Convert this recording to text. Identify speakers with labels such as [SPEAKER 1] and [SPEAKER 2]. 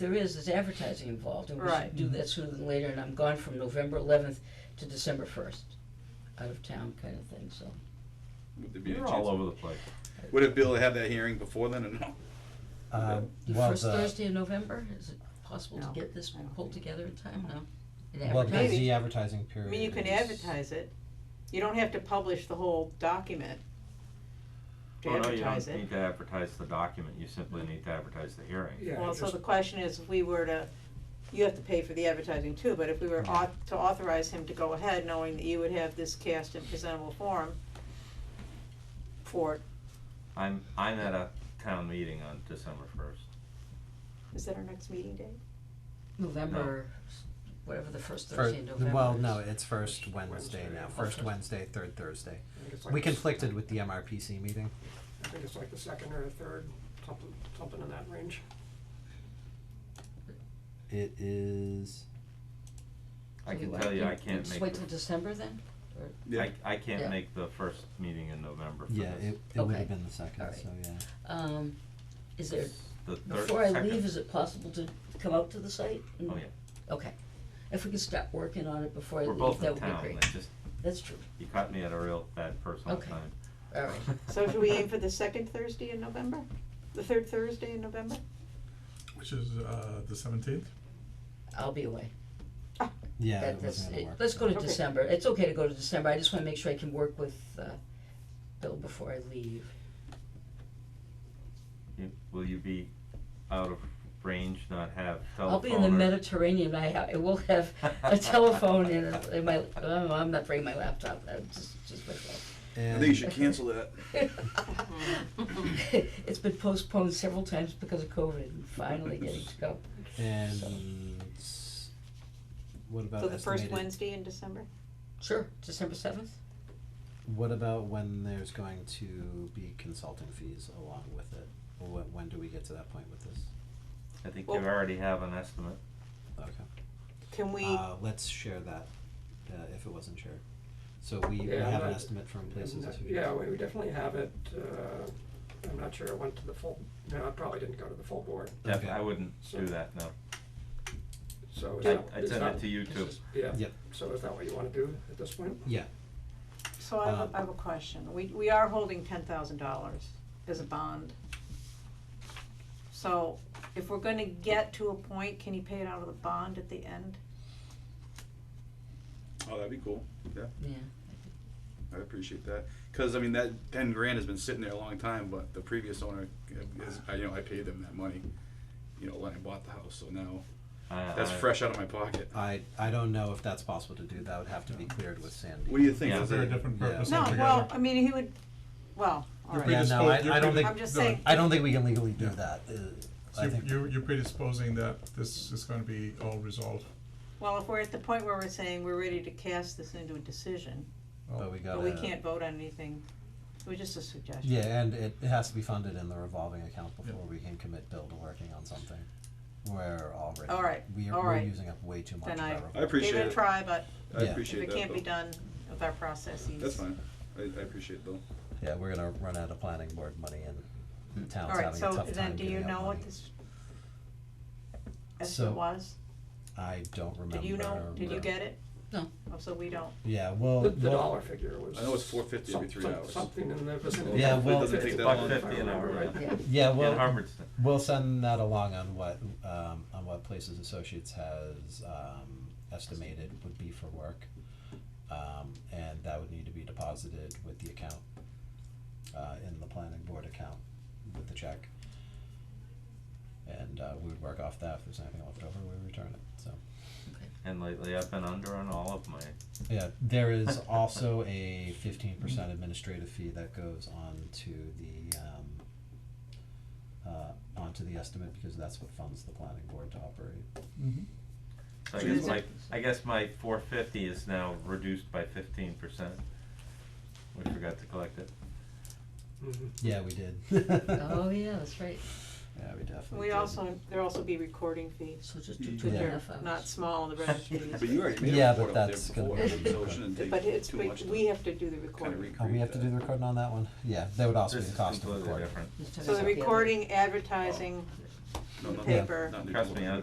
[SPEAKER 1] there is, there's advertising involved, and we
[SPEAKER 2] Right.
[SPEAKER 1] should do that sooner than later, and I'm gone from November eleventh to December first, out of town kind of thing, so.
[SPEAKER 3] Would there be a
[SPEAKER 4] You're all
[SPEAKER 3] chance?
[SPEAKER 4] over the place.
[SPEAKER 3] Would it be able to have that hearing before then or no?
[SPEAKER 5] Um,
[SPEAKER 1] The
[SPEAKER 5] well,
[SPEAKER 1] first
[SPEAKER 5] the-
[SPEAKER 1] Thursday in November, is it possible to
[SPEAKER 2] No,
[SPEAKER 1] get this
[SPEAKER 2] I don't
[SPEAKER 1] pulled together in time, no? And
[SPEAKER 5] Well, because
[SPEAKER 1] advertise?
[SPEAKER 2] Maybe.
[SPEAKER 5] the advertising
[SPEAKER 2] I
[SPEAKER 5] period.
[SPEAKER 2] mean, you can
[SPEAKER 5] is-
[SPEAKER 2] advertise it. You don't have to publish the whole document to
[SPEAKER 4] Oh, no, you
[SPEAKER 2] advertise
[SPEAKER 4] don't
[SPEAKER 2] it.
[SPEAKER 4] need to advertise the document, you simply need to advertise the hearing.
[SPEAKER 6] Yeah,
[SPEAKER 2] Well,
[SPEAKER 6] just-
[SPEAKER 2] so the question is, if we were to, you have to pay for the advertising too, but if we were au- to authorize him to go ahead, knowing that you would have this cast in presentable form for, it.
[SPEAKER 4] I'm, I'm at a town meeting on December first.
[SPEAKER 2] is that our next meeting date?
[SPEAKER 1] November, s- whatever the first
[SPEAKER 5] Fir-
[SPEAKER 1] Thursday in November is.
[SPEAKER 5] well, no, it's first Wednesday
[SPEAKER 6] Wednesday.
[SPEAKER 5] now,
[SPEAKER 6] Oh,
[SPEAKER 5] first
[SPEAKER 1] first.
[SPEAKER 5] Wednesday, third Thursday.
[SPEAKER 6] I think it's like
[SPEAKER 5] We
[SPEAKER 6] the s-
[SPEAKER 5] conflicted with the MRPC meeting.
[SPEAKER 6] I think it's like the second or the third, something, something in that range.
[SPEAKER 5] It is,
[SPEAKER 4] I
[SPEAKER 1] So
[SPEAKER 4] can
[SPEAKER 1] we-
[SPEAKER 4] tell you, I can't
[SPEAKER 1] just
[SPEAKER 4] make,
[SPEAKER 1] Wait till
[SPEAKER 4] the-
[SPEAKER 1] December then?
[SPEAKER 4] I, I
[SPEAKER 1] Yeah.
[SPEAKER 4] can't make the first meeting in November for this.
[SPEAKER 5] yeah, it, it would
[SPEAKER 1] Okay.
[SPEAKER 5] have been the second,
[SPEAKER 1] Alright.
[SPEAKER 5] so, yeah.
[SPEAKER 1] Um, is there,
[SPEAKER 4] It's The third,
[SPEAKER 1] before I leave,
[SPEAKER 4] second.
[SPEAKER 1] is it possible to come out to the site? and-
[SPEAKER 4] Oh, yeah,
[SPEAKER 1] Okay, if we could start working on it before I
[SPEAKER 4] we're
[SPEAKER 1] leave,
[SPEAKER 4] both
[SPEAKER 1] that
[SPEAKER 4] in
[SPEAKER 1] would be
[SPEAKER 4] town,
[SPEAKER 1] great,
[SPEAKER 4] It's just,
[SPEAKER 1] that's true,
[SPEAKER 4] you caught me at a real bad personal
[SPEAKER 1] Okay.
[SPEAKER 4] time.
[SPEAKER 1] all right.
[SPEAKER 2] So should we aim for the second Thursday in November? The third Thursday in November?
[SPEAKER 7] Which is uh, the seventeenth.
[SPEAKER 1] I'll be away.
[SPEAKER 5] Yeah,
[SPEAKER 1] That,
[SPEAKER 5] it
[SPEAKER 1] that's,
[SPEAKER 5] wasn't gonna
[SPEAKER 1] it-
[SPEAKER 5] work.
[SPEAKER 1] let's go to
[SPEAKER 2] Okay.
[SPEAKER 1] December. It's okay to go to December. I just wanna make sure I can work with, uh, Bill before I leave.
[SPEAKER 4] You- Will you be out of range, not have telephone or?
[SPEAKER 1] I'll be in the Mediterranean. I, ha- I will have a telephone and, a- and my, oh, I'm not bringing my laptop. i just, just my
[SPEAKER 3] I think you
[SPEAKER 5] And
[SPEAKER 3] should cancel that.
[SPEAKER 1] phone. It's been postponed several times because of COVID and finally getting to go.
[SPEAKER 5] and s- what about
[SPEAKER 2] So the first
[SPEAKER 5] estimated-
[SPEAKER 2] Wednesday in December?
[SPEAKER 1] Sure, December seventh?
[SPEAKER 5] What about when there's going to be consulting fees along with it? What, when do we get to that point with this?
[SPEAKER 4] I think you
[SPEAKER 2] Well-
[SPEAKER 4] already have an estimate.
[SPEAKER 5] Okay.
[SPEAKER 2] Can we,
[SPEAKER 5] Uh, let's share that, uh, if it wasn't shared. So we, we
[SPEAKER 6] Yeah,
[SPEAKER 5] have an
[SPEAKER 6] that-
[SPEAKER 5] estimate from places
[SPEAKER 6] And, uh,
[SPEAKER 5] as we.
[SPEAKER 6] Yeah, we we definitely have it, uh, I'm not sure it went to the full, no, it probably didn't go to the full board,
[SPEAKER 4] Def-
[SPEAKER 5] Okay.
[SPEAKER 4] I wouldn't
[SPEAKER 6] So-
[SPEAKER 4] do that, no.
[SPEAKER 6] so is
[SPEAKER 4] I,
[SPEAKER 6] that,
[SPEAKER 4] I
[SPEAKER 6] is
[SPEAKER 4] sent
[SPEAKER 6] that-
[SPEAKER 4] it to you too.
[SPEAKER 6] is- Yeah,
[SPEAKER 5] Yep.
[SPEAKER 6] so is that what you wanna do at this point?
[SPEAKER 5] Yeah,
[SPEAKER 2] so I have,
[SPEAKER 5] um,
[SPEAKER 2] a I have a question. We, we are holding ten thousand dollars as a bond. So if we're gonna get to a point, can you pay it out of the bond at the end?
[SPEAKER 3] Oh, that'd be cool. Yeah,
[SPEAKER 1] Yeah.
[SPEAKER 3] I'd appreciate that. Cause I mean, that ten grand has been sitting there a long time, but the previous owner is, I, you know, I paid them that money. You know, when I bought the house, so now
[SPEAKER 4] I-
[SPEAKER 3] that's
[SPEAKER 4] I-
[SPEAKER 3] fresh out of my pocket.
[SPEAKER 5] I, I don't know if that's possible to do, that would have to be cleared with Sandy.
[SPEAKER 3] What do you think?
[SPEAKER 4] Yeah,
[SPEAKER 3] Is
[SPEAKER 7] They're a
[SPEAKER 3] it-
[SPEAKER 7] different
[SPEAKER 5] Yeah.
[SPEAKER 7] purpose
[SPEAKER 2] No,
[SPEAKER 7] altogether.
[SPEAKER 2] well, I mean, he would, well, all
[SPEAKER 7] You're
[SPEAKER 2] right.
[SPEAKER 5] Yeah, no, I-
[SPEAKER 7] predispos- you're
[SPEAKER 5] I don't think-
[SPEAKER 7] predi-
[SPEAKER 2] I'm just
[SPEAKER 7] no,
[SPEAKER 2] saying-
[SPEAKER 5] I don't think we can legally do
[SPEAKER 7] Yeah.
[SPEAKER 5] that, uh,
[SPEAKER 7] so
[SPEAKER 5] I
[SPEAKER 7] you-
[SPEAKER 5] think,
[SPEAKER 7] You, you're predisposing that this is gonna be all resolved.
[SPEAKER 2] Well, if we're at the point where we're saying we're ready to cast this into a decision,
[SPEAKER 5] but we gotta.
[SPEAKER 2] but we can't vote on anything, it was just a suggestion.
[SPEAKER 5] Yeah, and it, it has to be funded in the revolving account before we can commit Bill to working on something. We're already.
[SPEAKER 2] All right,
[SPEAKER 5] We
[SPEAKER 2] all
[SPEAKER 5] are, we're
[SPEAKER 2] right.
[SPEAKER 5] using up way too much
[SPEAKER 2] Then
[SPEAKER 5] of
[SPEAKER 2] I-
[SPEAKER 5] our.
[SPEAKER 3] I
[SPEAKER 5] revolving-
[SPEAKER 2] Give
[SPEAKER 3] appreciate
[SPEAKER 2] it a
[SPEAKER 3] it.
[SPEAKER 2] try, but
[SPEAKER 3] I
[SPEAKER 5] Yeah.
[SPEAKER 2] if
[SPEAKER 3] appreciate
[SPEAKER 2] it
[SPEAKER 3] that.
[SPEAKER 2] can't be
[SPEAKER 3] though.
[SPEAKER 2] done with our processes.
[SPEAKER 3] That's fine. I, I appreciate it though.
[SPEAKER 5] Yeah, we're gonna run out of planning board money and the town's
[SPEAKER 2] Hmm. All right,
[SPEAKER 5] having a tough
[SPEAKER 2] so
[SPEAKER 5] time
[SPEAKER 2] then do you
[SPEAKER 5] giving out
[SPEAKER 2] know what
[SPEAKER 5] money.
[SPEAKER 2] this estimate
[SPEAKER 5] So-
[SPEAKER 2] was?
[SPEAKER 5] I don't remember.
[SPEAKER 2] Did you know, did you
[SPEAKER 5] where-
[SPEAKER 2] get it?
[SPEAKER 1] No.
[SPEAKER 2] Oh, so we don't.
[SPEAKER 5] Yeah, well,
[SPEAKER 6] The, the
[SPEAKER 5] well,
[SPEAKER 6] dollar figure was.
[SPEAKER 3] I know it's four fifty every
[SPEAKER 6] some-
[SPEAKER 3] three
[SPEAKER 6] some-
[SPEAKER 3] hours.
[SPEAKER 6] Something in the vicinity.
[SPEAKER 5] Yeah,
[SPEAKER 6] of
[SPEAKER 5] well-
[SPEAKER 3] It doesn't take that
[SPEAKER 4] Buck
[SPEAKER 3] long.
[SPEAKER 4] fifty an hour, yeah.
[SPEAKER 1] Yeah.
[SPEAKER 5] yeah,
[SPEAKER 4] In
[SPEAKER 5] well,
[SPEAKER 4] Hubbardston.
[SPEAKER 5] we'll send that along on what, um, on what Places Associates has, um, estimated would be for work. Um, and that would need to be deposited with the account, uh, in the planning board account with the check. And, uh, we would work off that, if there's anything left over, we return it, so.
[SPEAKER 4] And lately, I've been under on all of my.
[SPEAKER 5] Yeah, there is also a fifteen percent administrative fee that goes on to the, um, uh, onto the estimate, because that's what funds the planning board to operate.
[SPEAKER 7] Mm-hmm.
[SPEAKER 4] So I guess my I guess my four fifty is now reduced by fifteen percent. We forgot to collect it.
[SPEAKER 6] Mhm.
[SPEAKER 5] Yeah, we did.
[SPEAKER 1] Oh, yeah, that's right.
[SPEAKER 5] Yeah, we definitely
[SPEAKER 2] We
[SPEAKER 5] did.
[SPEAKER 2] also, there'll also be recording fees.
[SPEAKER 1] So just do two
[SPEAKER 3] Yeah.
[SPEAKER 1] and a
[SPEAKER 2] They're
[SPEAKER 1] half hours.
[SPEAKER 2] Not small, the registry
[SPEAKER 3] But you already made
[SPEAKER 5] Yeah,
[SPEAKER 3] a
[SPEAKER 5] but
[SPEAKER 3] report out there
[SPEAKER 5] that's gonna
[SPEAKER 3] before,
[SPEAKER 5] be-
[SPEAKER 3] so it shouldn't take
[SPEAKER 2] But it's,
[SPEAKER 3] too
[SPEAKER 2] we-
[SPEAKER 3] much to
[SPEAKER 2] we have to do the
[SPEAKER 3] kinda
[SPEAKER 2] recording.
[SPEAKER 5] Oh, we have to do
[SPEAKER 3] recreate
[SPEAKER 5] the recording on that one? Yeah, that would also be
[SPEAKER 4] This
[SPEAKER 5] the
[SPEAKER 4] is
[SPEAKER 5] cost of
[SPEAKER 4] completely
[SPEAKER 5] recording.
[SPEAKER 4] different.
[SPEAKER 1] Let's talk
[SPEAKER 2] So the
[SPEAKER 1] about other-
[SPEAKER 2] Oh. recording, advertising,
[SPEAKER 3] No,
[SPEAKER 2] the
[SPEAKER 3] not-
[SPEAKER 2] paper.
[SPEAKER 3] not new
[SPEAKER 4] Trust
[SPEAKER 3] building.
[SPEAKER 4] me, I-